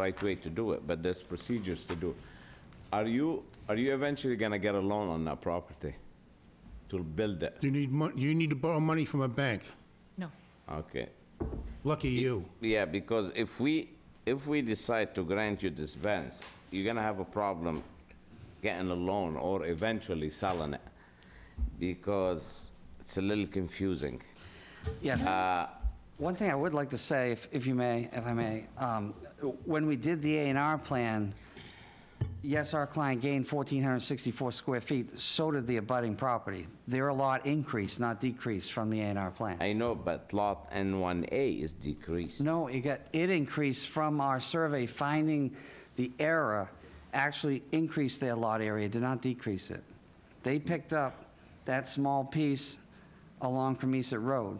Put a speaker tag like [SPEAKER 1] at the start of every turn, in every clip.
[SPEAKER 1] right way to do it, but there's procedures to do. Are you, are you eventually gonna get a loan on that property to build it?
[SPEAKER 2] You need mon, you need to borrow money from a bank.
[SPEAKER 3] No.
[SPEAKER 1] Okay.
[SPEAKER 2] Lucky you.
[SPEAKER 1] Yeah, because if we, if we decide to grant you this variance, you're gonna have a problem getting a loan or eventually selling it, because it's a little confusing.
[SPEAKER 4] Yes. Uh, One thing I would like to say, if if you may, if I may, um, when we did the A and R plan, yes, our client gained 1,464 square feet, so did the abutting property. Their lot increased, not decreased, from the A and R plan.
[SPEAKER 1] I know, but lot N1A is decreased.
[SPEAKER 4] No, it got, it increased from our survey finding the error, actually increased their lot area, did not decrease it. They picked up that small piece along Cremisa Road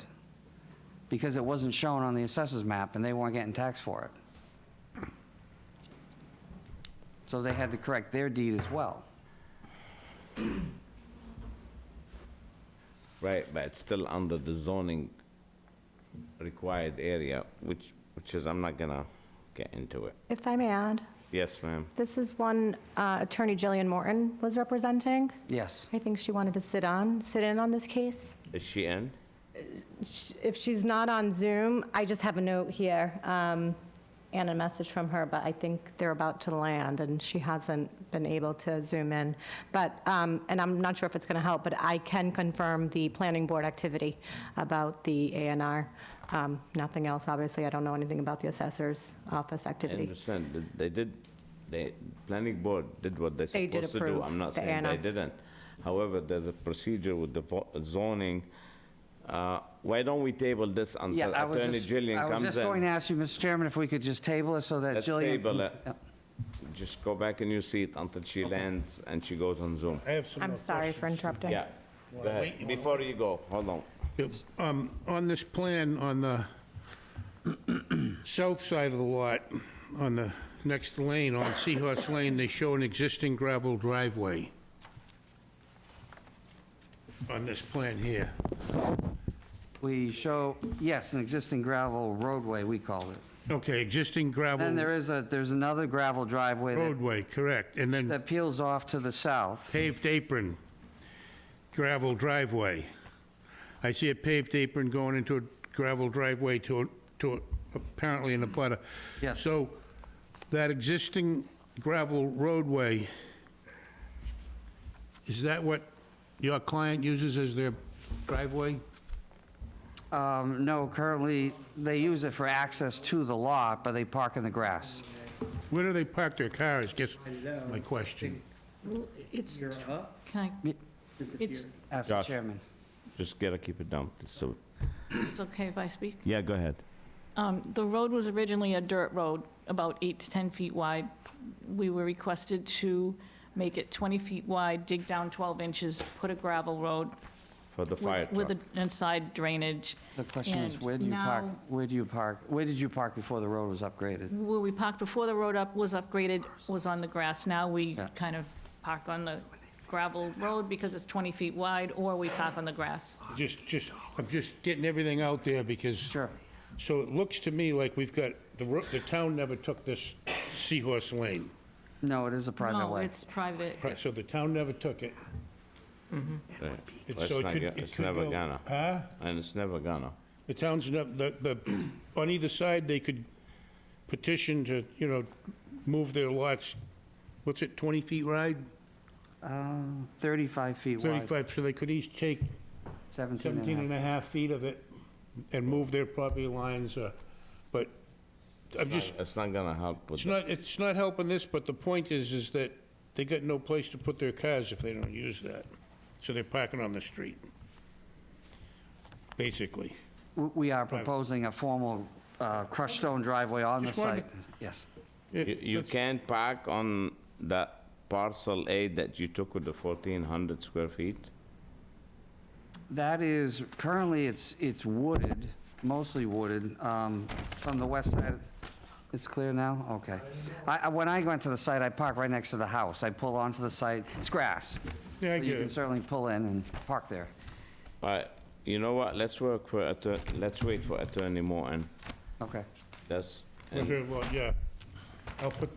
[SPEAKER 4] because it wasn't shown on the assessor's map and they weren't getting taxed for it. So they had to correct their deed as well.
[SPEAKER 1] Right, but it's still under the zoning required area, which, which is, I'm not gonna get into it.
[SPEAKER 5] If I may add,
[SPEAKER 1] Yes, ma'am.
[SPEAKER 5] this is one uh, Attorney Jillian Morton was representing.
[SPEAKER 4] Yes.
[SPEAKER 5] I think she wanted to sit on, sit in on this case.
[SPEAKER 1] Is she in?
[SPEAKER 5] Sh- If she's not on Zoom, I just have a note here um, and a message from her, but I think they're about to land and she hasn't been able to Zoom in. But, um, and I'm not sure if it's going to help, but I can confirm the planning board activity about the A and R. Um, Nothing else, obviously. I don't know anything about the assessor's office
[SPEAKER 1] I
[SPEAKER 5] activity.
[SPEAKER 1] understand, that they did, they, planning board did what they're
[SPEAKER 5] They did
[SPEAKER 1] supposed to do.
[SPEAKER 5] approve
[SPEAKER 1] I'm not
[SPEAKER 5] the
[SPEAKER 1] saying they
[SPEAKER 5] A&R.
[SPEAKER 1] didn't. However, there's a procedure with the vo- zoning. Uh, Why don't we table this
[SPEAKER 4] Yeah,
[SPEAKER 1] until
[SPEAKER 4] I was
[SPEAKER 1] Attorney
[SPEAKER 4] just-
[SPEAKER 1] Gillian
[SPEAKER 4] I was
[SPEAKER 1] comes
[SPEAKER 4] just going to
[SPEAKER 1] in?
[SPEAKER 4] ask you, Mr. Chairman, if we could just table it so that
[SPEAKER 1] Let's
[SPEAKER 4] Jillian.
[SPEAKER 1] table it. Just go back in your seat until she lands and she goes on Zoom.
[SPEAKER 6] I have some
[SPEAKER 5] I'm
[SPEAKER 6] more
[SPEAKER 5] sorry for
[SPEAKER 6] questions.
[SPEAKER 5] interrupting.
[SPEAKER 1] Yeah, go ahead. Before you go, hold on.
[SPEAKER 2] Yep. Um, on this plan, on the south side of the lot, on the next lane, on Seahorse Lane, they show an existing gravel driveway. On this plan here.
[SPEAKER 4] We show, yes, an existing gravel roadway, we call it.
[SPEAKER 2] Okay, existing
[SPEAKER 4] Then
[SPEAKER 2] gravel
[SPEAKER 4] there is a, there's another gravel driveway that-
[SPEAKER 2] roadway, correct, and then
[SPEAKER 4] that peels off to the south.
[SPEAKER 2] paved apron, gravel driveway. I see a paved apron going into a gravel driveway to, to apparently in a butter.
[SPEAKER 4] Yes.
[SPEAKER 2] So that existing gravel roadway, is that what your client uses as their driveway?
[SPEAKER 4] Um, No, currently, they use it for access to the lot, but they park in the grass.
[SPEAKER 2] Where do they park their cars, guess my question.
[SPEAKER 3] It's,
[SPEAKER 7] You're up,
[SPEAKER 3] can I, it's,
[SPEAKER 7] disappear.
[SPEAKER 4] Ask the
[SPEAKER 1] Josh.
[SPEAKER 4] chairman.
[SPEAKER 1] Just gotta keep it down, so,
[SPEAKER 3] it's okay if I speak?
[SPEAKER 1] yeah, go ahead.
[SPEAKER 3] Um, The road was originally a dirt road, about eight to 10 feet wide. We were requested to make it 20 feet wide, dig down 12 inches, put a gravel road
[SPEAKER 1] For the
[SPEAKER 3] with-
[SPEAKER 1] fire truck.
[SPEAKER 3] with an inside drainage.
[SPEAKER 4] The question is,
[SPEAKER 3] And
[SPEAKER 4] where do you park,
[SPEAKER 3] now-
[SPEAKER 4] where do you park, where did you park before the road was upgraded?
[SPEAKER 3] Where we parked before the road up was upgraded, was on the grass. Now we
[SPEAKER 4] Yeah.
[SPEAKER 3] kind of park on the gravel road because it's 20 feet wide, or we park on the grass.
[SPEAKER 2] Just, just, I'm just getting everything out there because.
[SPEAKER 4] Sure.
[SPEAKER 2] So it looks to me like we've got, the, ro- the town never took this Seahorse Lane.
[SPEAKER 4] No, it is a private
[SPEAKER 3] No,
[SPEAKER 4] way.
[SPEAKER 3] it's private.
[SPEAKER 2] Right, so the town never took it.
[SPEAKER 1] Right. Well,
[SPEAKER 2] It's- so
[SPEAKER 1] It's
[SPEAKER 2] it
[SPEAKER 1] not
[SPEAKER 2] could-
[SPEAKER 1] go-
[SPEAKER 2] it
[SPEAKER 1] it's
[SPEAKER 2] could
[SPEAKER 1] never
[SPEAKER 2] go-
[SPEAKER 1] gonna. And it's never gonna.
[SPEAKER 2] The town's never, the, the, on either side, they could petition to, you know, move their lots, what's it, 20 feet wide?
[SPEAKER 4] Um, 35 feet wide,
[SPEAKER 2] 35, so they could each take
[SPEAKER 4] 17 and a
[SPEAKER 2] 17
[SPEAKER 4] half.
[SPEAKER 2] and a half feet of it and move their property lines, uh, but I'm just,
[SPEAKER 1] It's not gonna help with
[SPEAKER 2] it's not, it's not helping this, but the point is, is that they got no place to put their cars if they don't use that. So they're parking on the street, basically.
[SPEAKER 4] W- We are proposing a formal uh, crushed stone driveway on the
[SPEAKER 2] Just wanted
[SPEAKER 4] site. Yes.
[SPEAKER 1] You you can't park on that parcel A that you took with the 1,400 square feet?
[SPEAKER 4] That is, currently, it's, it's wooded, mostly wooded, um, from the west side. It's clear now? Okay. I, I- when I went to the site, I parked right next to the house. I pull onto the site, it's grass.
[SPEAKER 2] Yeah, I get
[SPEAKER 4] But You can
[SPEAKER 2] it.
[SPEAKER 4] certainly pull in and park there.
[SPEAKER 1] All right, you know what, let's work for, atter- let's wait for Attorney Morton.
[SPEAKER 4] Okay.
[SPEAKER 1] That's, and
[SPEAKER 2] Okay, well, yeah. I'll put